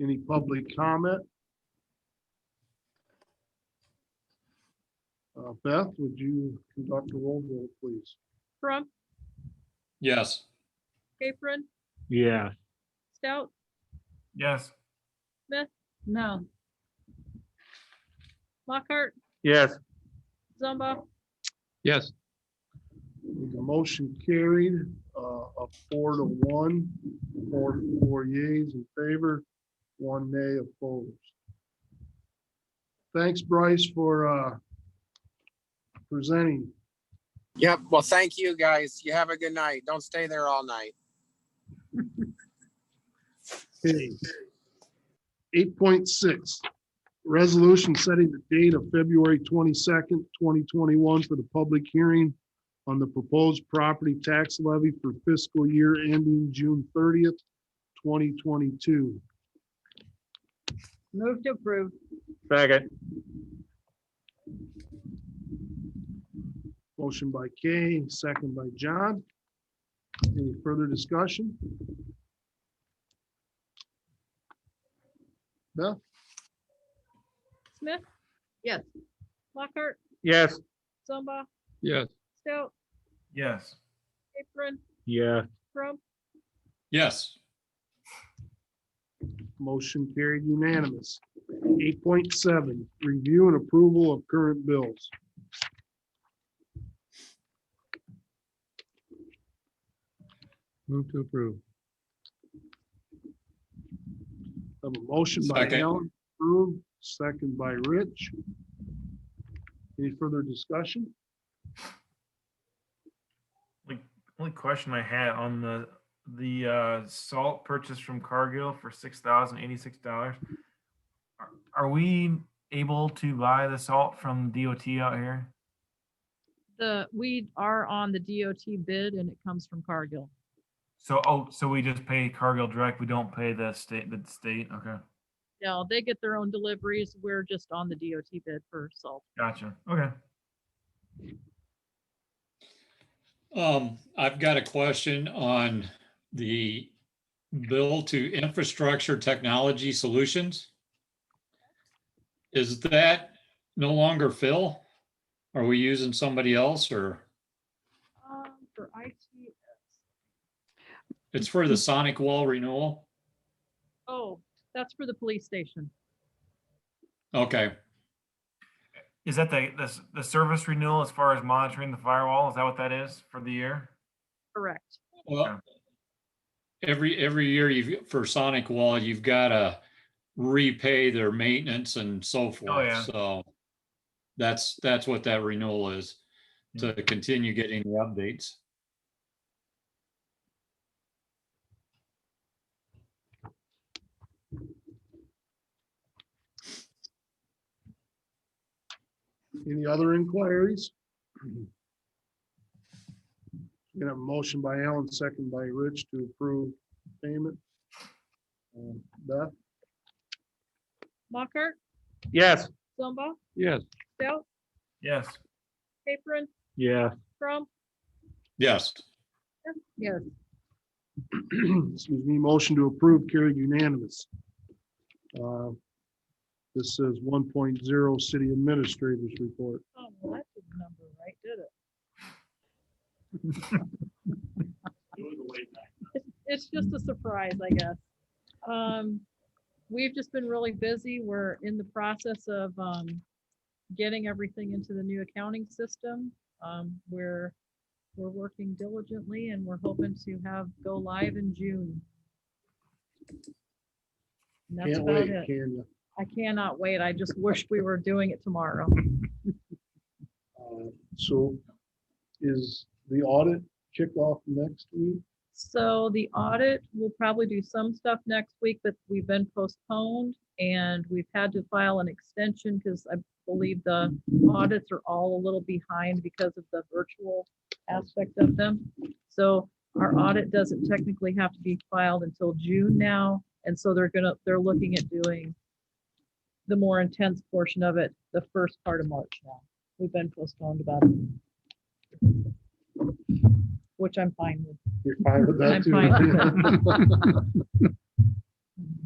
Any public comment? Uh, Beth, would you conduct a roll call, please? Trump, Yes. Capron, Yeah. Stout, Yes. No. Lockhart, Yes. Zumba, Yes. The motion carried, uh, a four to one, four, four yeas in favor, one nay opposed. Thanks, Bryce, for, uh, presenting. Yep. Well, thank you guys. You have a good night. Don't stay there all night. Eight point six, resolution setting the date of February twenty-second, twenty twenty-one for the public hearing on the proposed property tax levy for fiscal year ending June thirtieth, twenty twenty-two. Move to approve. Second. Motion by Kay, second by John. Any further discussion? Beth? Smith? Yes. Lockhart, Yes. Zumba, Yes. Stout, Yes. Capron, Yeah. Trump, Yes. Motion carried unanimous. Eight point seven, review and approval of current bills. Move to approve. Have a motion by Second. Alan, approved, second by Rich. Any further discussion? Like, only question I had on the, the, uh, salt purchase from Cargill for six thousand eighty-six dollars. Are we able to buy the salt from DOT out here? The, we are on the DOT bid and it comes from Cargill. So, oh, so we just pay Cargill direct? We don't pay the state, the state? Okay. No, they get their own deliveries. We're just on the DOT bid for salt. Gotcha. Okay. Um, I've got a question on the bill to infrastructure technology solutions. Is that no longer Phil? Are we using somebody else or um, for IT. it's for the Sonic Wall renewal? Oh, that's for the police station. Okay, Is that the, the, s- the service renewal as far as monitoring the firewall? Is that what that is for the year? Correct. well, every, every year you've, for Sonic Wall, you've got to repay their maintenance and so forth. yeah. So that's, that's what that renewal is, to continue getting the updates. Any other inquiries? Got a motion by Alan, second by Rich to approve payment. Um, Beth? Lockhart, Yes. Zumba, Yes. Stout, Yes. Capron, Yeah. Trump, Yes. Yes. excuse me, motion to approve carried unanimous. Uh, This is one city administrators report. Oh, well, that didn't number right, did it? it's just a surprise, I guess. Um, we've just been really busy. We're in the process of, um, getting everything into the new accounting system. Um, we're, we're working diligently and we're hoping to have go live in June. And that's Can't about wait, it. can you? I cannot wait. I just wish we were doing it tomorrow. Uh, So is the audit kickoff next week? So the audit, we'll probably do some stuff next week, but we've been postponed and we've had to file an extension because I believe the audits are all a little behind because of the virtual aspect of them. So our audit doesn't technically have to be filed until June now. And so they're gonna, they're looking at doing the more intense portion of it, the first part of March now. We've been postponed about it. Which I'm fine with. You're fine with that I'm too? fine.